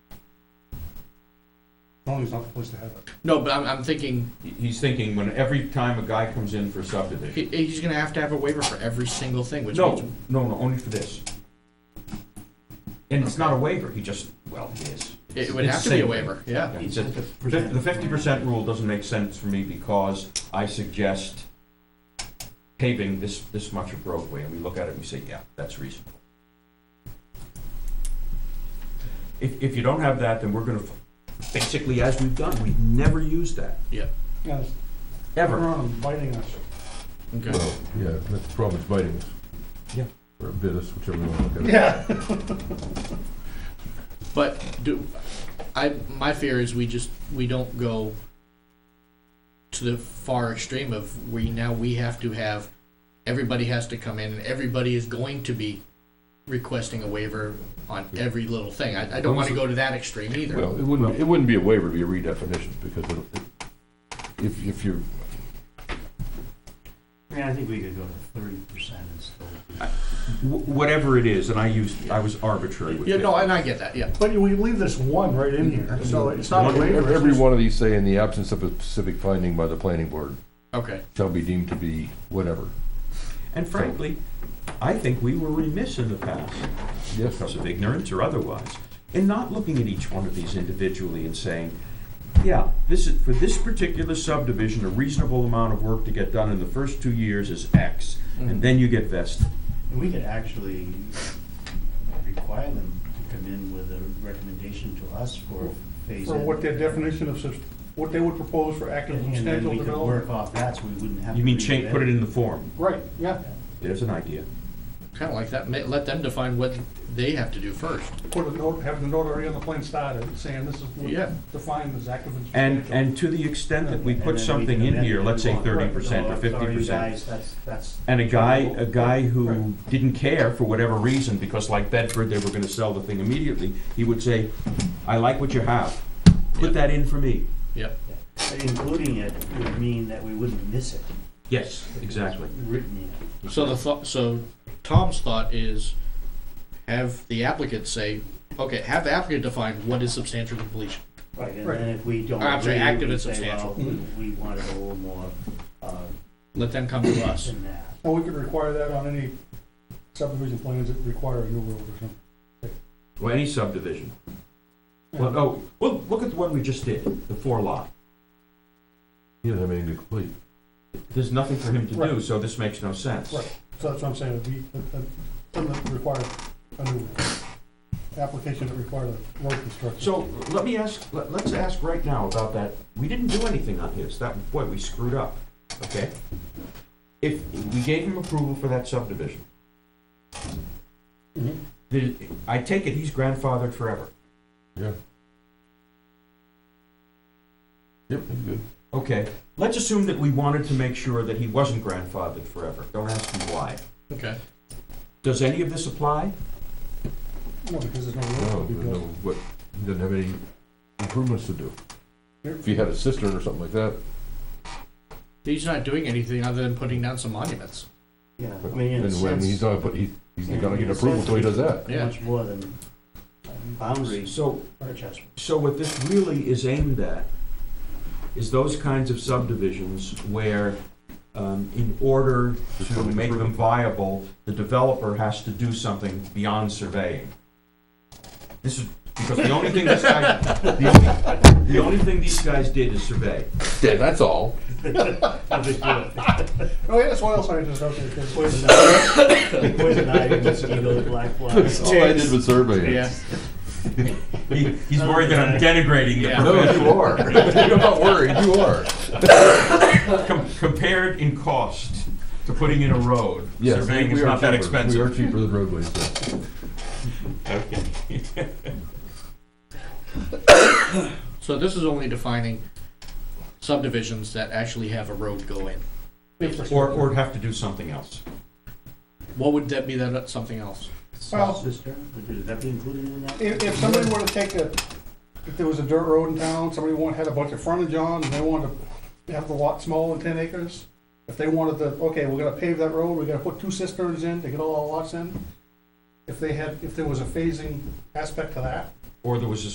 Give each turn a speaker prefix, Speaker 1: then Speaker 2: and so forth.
Speaker 1: Tony's not supposed to have it.
Speaker 2: No, but I'm, I'm thinking,
Speaker 3: He- He's thinking when every time a guy comes in for subdivision.
Speaker 2: he, he's gonna have to have a waiver for every single thing, which
Speaker 3: No,
Speaker 2: means.
Speaker 3: no, no, only for this. And it's not a waiver, he just, well, it is.
Speaker 2: It would
Speaker 3: It's
Speaker 2: have to be a
Speaker 3: same.
Speaker 2: waiver, yeah.
Speaker 3: He said, "Fif- the fifty percent rule doesn't make sense for me because I suggest paving this, this much of roadway, and we look at it and we say, yeah, that's reasonable. If, if you don't have that, then we're gonna, f- basically, as we've done, we've never used that,
Speaker 1: Yes,
Speaker 3: ever.
Speaker 2: Uh-huh.
Speaker 1: we're on biting us.
Speaker 2: Okay.
Speaker 4: Well, yeah, that's the problem, it's biting us.
Speaker 3: Yeah.
Speaker 4: Or bit us, whichever you want to look at it.
Speaker 1: Yeah.
Speaker 2: But do, I, my fear is we just, we don't go to the far extreme of we, now we have to have, everybody has to come in, and everybody is going to be requesting a waiver on every little thing. I, I don't wanna go to that extreme either.
Speaker 4: Well, it wouldn't, it wouldn't be a waiver, it'd be a redefinition, because it'll- it- if, if you're,
Speaker 5: Yeah, I think we could go to thirty percent and still.
Speaker 3: Wh- whatever it is, and I used, I was arbitrary with
Speaker 2: Yeah,
Speaker 3: it.
Speaker 2: no, and I get that, yeah.
Speaker 1: But we leave this one right in here, so it's not a waiver. it's
Speaker 4: every
Speaker 1: just-
Speaker 4: one of these say, in the absence of a specific finding by the planning board,
Speaker 2: Okay,
Speaker 4: shall be deemed to be whatever.
Speaker 3: And frankly, I think we were remiss in the past,
Speaker 4: Yes,
Speaker 3: because of ignorance or otherwise, in not looking at each one of these individually and saying, yeah, this is, for this particular subdivision, a reasonable amount of work to get done in the first two years is X,
Speaker 5: Mm-hmm.
Speaker 3: and then you get vested.
Speaker 5: And we could actually require them to come in with a recommendation to us for phase
Speaker 1: For
Speaker 5: in.
Speaker 1: what their definition of, subs- what they would propose for active
Speaker 5: And then
Speaker 1: substantial
Speaker 5: we could
Speaker 1: development.
Speaker 5: work off that, so we wouldn't have.
Speaker 3: You
Speaker 5: to
Speaker 3: mean
Speaker 5: redo
Speaker 3: change, put it in the form,
Speaker 1: Right, yeah,
Speaker 3: there's an idea.
Speaker 2: kinda like that, Ma- let them define what they have to do first.
Speaker 1: put a note, have the notary on the plan started, saying this is
Speaker 2: Yeah.
Speaker 1: what defined as active and
Speaker 3: And,
Speaker 1: substantial.
Speaker 3: and to the extent that we
Speaker 5: And
Speaker 3: put
Speaker 5: then
Speaker 3: something
Speaker 5: can
Speaker 3: in
Speaker 5: amend
Speaker 3: here,
Speaker 5: it
Speaker 3: let's say
Speaker 5: if we want.
Speaker 3: thirty percent
Speaker 5: No,
Speaker 3: or
Speaker 5: I'm
Speaker 3: fifty
Speaker 5: sorry,
Speaker 3: percent,
Speaker 5: guys, that's, that's.
Speaker 3: and a guy, a guy
Speaker 1: Right.
Speaker 3: who didn't care for whatever reason, because like Bedford, they were gonna sell the thing immediately, he would say, I like what you have,
Speaker 2: Yeah.
Speaker 3: put that in for me.
Speaker 2: Yep,
Speaker 5: But Including it would mean that we wouldn't miss it.
Speaker 3: Yes, exactly.
Speaker 5: Written
Speaker 2: so the thought, so Tom's thought is have the applicant say, okay, have the applicant define what is substantial completion.
Speaker 5: in. Right, and
Speaker 1: Right.
Speaker 5: then if we don't.
Speaker 2: I'm sorry,
Speaker 5: agree, we
Speaker 2: active and
Speaker 5: say,
Speaker 2: substantial.
Speaker 5: well, We we wanted a little more, uh,
Speaker 2: Let them come to us.
Speaker 5: than that.
Speaker 1: Or we could require that on any subdivision plans that require a new road or something.
Speaker 3: Well, any subdivision. Well, oh, well, look at the one we just did, the four lot.
Speaker 4: He doesn't have anything to complete.
Speaker 3: There's nothing for him to do,
Speaker 1: Right.
Speaker 3: so this makes no sense.
Speaker 1: Right. So that's what I'm saying, uh, it'd be, that- that- something that requires a new road. application that requires a road construction.
Speaker 3: So let me ask, let, let's ask right now about that. We didn't do anything on his. That, boy, we screwed up, okay? If we gave him approval for that subdivision,
Speaker 1: Mhm.
Speaker 3: the- I take it he's grandfathered forever.
Speaker 4: Yeah. Yep, that's good.
Speaker 3: Okay, let's assume that we wanted to make sure that he wasn't grandfathered forever. Don't ask me why.
Speaker 2: Okay.
Speaker 3: Does any of this apply?
Speaker 1: No, because there's no
Speaker 4: No,
Speaker 1: road. to be
Speaker 4: no,
Speaker 1: built.
Speaker 4: what, he doesn't have any improvements to do. If he had a cistern or something like that,
Speaker 2: He's not doing anything other than putting down some monuments.
Speaker 5: Yeah, I
Speaker 4: but
Speaker 5: mean, in a
Speaker 4: then when
Speaker 5: sense-
Speaker 4: he's not, but he, he's
Speaker 5: Yeah,
Speaker 4: not gonna
Speaker 5: in
Speaker 4: get
Speaker 5: a
Speaker 4: approval
Speaker 5: sense,
Speaker 4: until he does that.
Speaker 2: Yeah.
Speaker 5: Much more than boundaries
Speaker 3: So,
Speaker 5: for Chesapeake.
Speaker 3: so what this really is aimed at is those kinds of subdivisions where, um, in order to make them viable, the developer has to do something beyond surveying. This is, because the only thing this guy, the only, the only thing these guys did is survey.
Speaker 4: Yeah, that's all.
Speaker 1: Oh, yeah, soil scientists out there, because
Speaker 5: Poison ivy, poison ivy, mosquito, black fly.
Speaker 4: All I did was survey it.
Speaker 2: Yeah.
Speaker 3: He, he's worried that I'm denigrating the
Speaker 2: Yeah.
Speaker 4: No,
Speaker 3: profession.
Speaker 4: you are. You're not worried, you are.
Speaker 3: Com- Compared in cost to putting in a road,
Speaker 4: Yes,
Speaker 3: surveying
Speaker 4: we
Speaker 3: is
Speaker 4: are
Speaker 3: not that
Speaker 4: cheaper. We are
Speaker 3: expensive.
Speaker 4: cheaper than roadways, so.
Speaker 3: Okay.
Speaker 2: So this is only defining subdivisions that actually have a road go in.
Speaker 3: Or, or have to do something else.
Speaker 2: What would that be that, something else?
Speaker 1: Well-
Speaker 5: Sister, would that be included in that?
Speaker 1: If, if somebody were to take a, if there was a dirt road in town, somebody wanted, had a bunch of frontage on, and they wanted to have the lot smaller than ten acres, if they wanted to, okay, we're gonna pave that road, we're gonna put two cisterns in to get all our lots in, if they had, if there was a phasing aspect to that,
Speaker 3: Or there was a